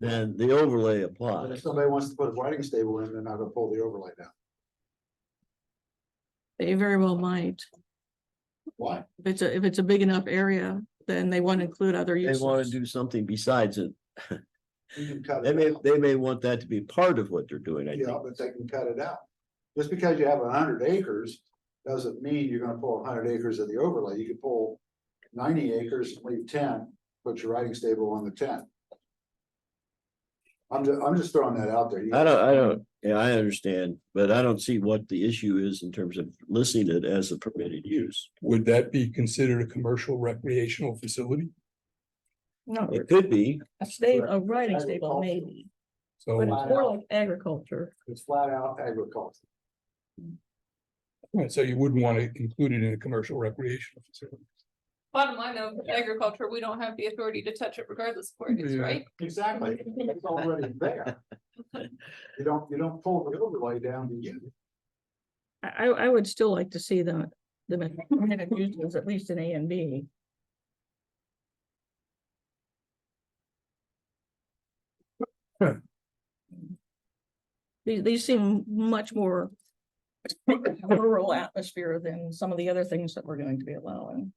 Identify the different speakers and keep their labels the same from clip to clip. Speaker 1: then the overlay
Speaker 2: But if
Speaker 1: applies.
Speaker 2: somebody wants to put a riding stable in, they're not gonna pull the overlay down.
Speaker 3: They very well might.
Speaker 2: Why?
Speaker 3: If it's a, if it's a big enough area, then they want to include other
Speaker 1: They
Speaker 3: uses.
Speaker 1: wanna do something besides it.
Speaker 2: You can cut
Speaker 1: They
Speaker 2: it
Speaker 1: may,
Speaker 2: out.
Speaker 1: they may want that to be part of what they're doing, I
Speaker 2: Yeah,
Speaker 1: think.
Speaker 2: but they can cut it out. Just because you have hundred acres, doesn't mean you're gonna pull hundred acres of the overlay. You could pull ninety acres, and leave ten, put your riding stable on the ten. I'm ju- I'm just throwing that out there. You-
Speaker 1: I don't, I don't, yeah, I understand, but I don't see what the issue is in terms of listing it as a permitted use.
Speaker 4: Would that be considered a commercial recreational facility?
Speaker 3: No,
Speaker 1: It could be,
Speaker 3: a state, a writing stable
Speaker 2: Agriculture.
Speaker 3: maybe, but
Speaker 4: So
Speaker 3: it's more like agriculture.
Speaker 2: It's flat out agriculture.
Speaker 4: right, so you wouldn't want to include it in a commercial recreational facility.
Speaker 5: Bottom line though, with agriculture, we don't have the authority to touch it regardless of where it is,
Speaker 4: Yeah.
Speaker 5: right?
Speaker 2: Exactly. It's already there. You don't, you don't pull the overlay down to you.
Speaker 3: I, I, I would still like to see the, the permitted uses at least in A and B.
Speaker 4: Huh.
Speaker 3: These, these seem much more rural atmosphere than some of the other things that we're going to be allowing.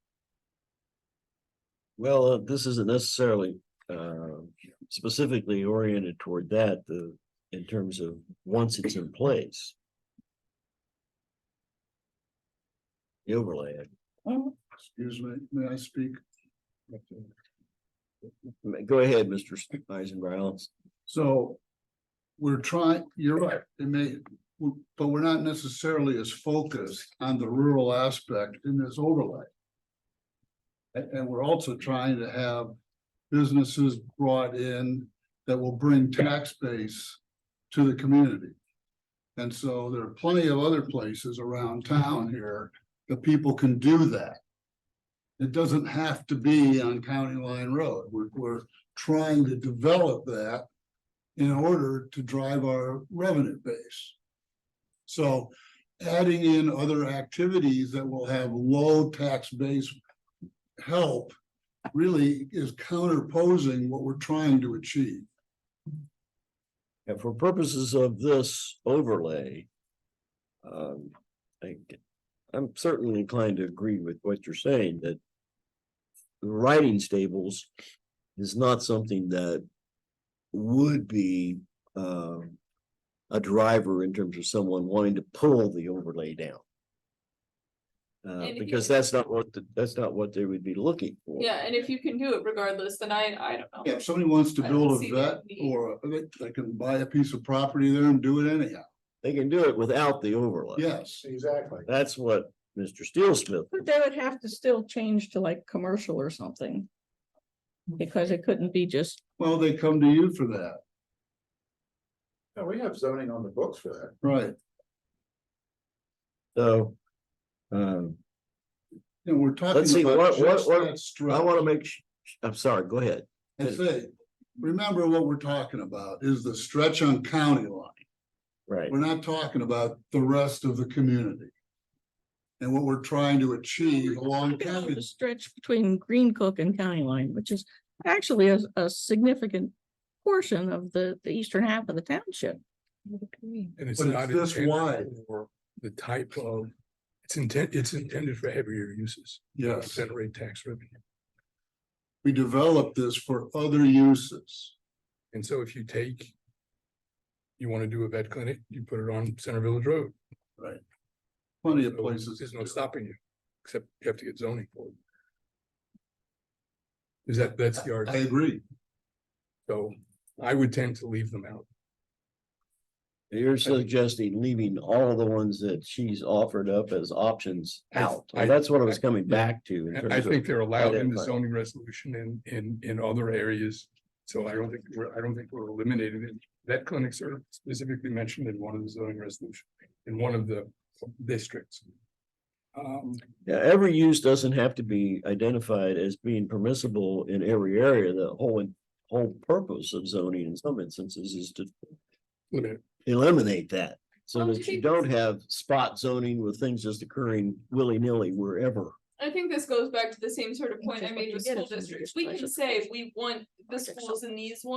Speaker 1: well, uh, this isn't necessarily, uh, specifically oriented toward that, the, in terms of once it's in place. The overlay,
Speaker 3: Well,
Speaker 2: Excuse me, may I speak?
Speaker 1: go ahead, Mr. Eisenbrow.
Speaker 2: So we're trying, you're right, it may, but we're not necessarily as focused on the rural aspect in this overlay. And, and we're also trying to have businesses brought in that will bring tax base to the community. And so there are plenty of other places around town here that people can do that. It doesn't have to be on County Line Road. We're, we're trying to develop that in order to drive our revenue base. So adding in other activities that will have low tax base help really is counterposing what we're trying to achieve.
Speaker 1: And for purposes of this overlay. Um, I, am certainly inclined to agree with what you're saying that. the Riding stables is not something that would be, um. A driver in terms of someone wanting to pull the overlay down. Uh,
Speaker 5: And if
Speaker 1: because
Speaker 5: you-
Speaker 1: that's not what, the- that's not what they would be looking for.
Speaker 5: Yeah, and if you can do it regardless, then I, I don't know.
Speaker 2: Yeah, if somebody wants to
Speaker 5: I don't
Speaker 2: build a
Speaker 5: see that
Speaker 2: vet
Speaker 5: need.
Speaker 2: or they, they can buy a piece of property there and do it anyhow.
Speaker 1: They can do it without the overlay.
Speaker 2: Yes. Exactly.
Speaker 1: That's what Mr. Steel Smith
Speaker 3: But they would have to still change to like commercial or something. Because it couldn't be just,
Speaker 2: Well, they come to you for that,
Speaker 6: Yeah, we have zoning on the books for that.
Speaker 2: right?
Speaker 1: So. Um,
Speaker 2: And we're talking.
Speaker 1: Let's see,
Speaker 2: about
Speaker 1: what- what-
Speaker 2: just
Speaker 1: what-
Speaker 2: that
Speaker 1: I
Speaker 2: stretch.
Speaker 1: wanna make, sh- I'm sorry, go ahead.
Speaker 2: I say, remember what we're talking about is the stretch on county line.
Speaker 1: Right.
Speaker 2: We're not talking about the rest of the community. And what we're trying to achieve along county.
Speaker 3: the stretch between Green Cook and County Line, which is actually a, a significant portion of the, the eastern half of the township.
Speaker 4: And it's
Speaker 2: But it's
Speaker 4: not
Speaker 2: this
Speaker 4: intended
Speaker 2: wide.
Speaker 4: for The type of, it's intent, it's intended for heavier uses. to
Speaker 2: Yes,
Speaker 4: Generate tax revenue.
Speaker 2: we developed this for other uses.
Speaker 4: And so if you take. You want to do a vet clinic, you put it on Center Village Road.
Speaker 2: Plenty of
Speaker 4: So
Speaker 2: places.
Speaker 4: There's no stopping you, except you have to get zoning for it. Is that, that's the
Speaker 2: I
Speaker 4: argument,
Speaker 2: agree.
Speaker 4: so I would tend to leave them out.
Speaker 1: You're suggesting leaving all of the ones that she's offered up as options
Speaker 4: I-
Speaker 1: out.
Speaker 4: I-
Speaker 1: That's what I was
Speaker 4: I-
Speaker 1: coming back to. in
Speaker 4: And I
Speaker 1: terms of-
Speaker 4: think they're allowed in the
Speaker 1: identify.
Speaker 4: zoning resolution and in, in other areas. So I don't think, we're I don't think we're eliminating it. Vet clinics are specifically mentioned in one of the zoning resolution, in one of the districts. Um,
Speaker 1: Yeah, every use doesn't have to be identified as being permissible in every area. The whole, whole purpose of zoning in some instances is to
Speaker 4: limit,
Speaker 1: eliminate that. So
Speaker 5: Well, do
Speaker 1: that
Speaker 5: you
Speaker 1: you
Speaker 5: think
Speaker 1: don't
Speaker 5: this-
Speaker 1: have spot zoning with things just occurring willy-nilly wherever.
Speaker 5: I think this goes back to the same sort of point
Speaker 3: Which is
Speaker 5: I
Speaker 3: what
Speaker 5: made
Speaker 3: you
Speaker 5: with
Speaker 3: get if
Speaker 5: school
Speaker 3: somebody
Speaker 5: districts.
Speaker 3: gets
Speaker 5: We can
Speaker 3: special
Speaker 5: say we want the schools in these ones.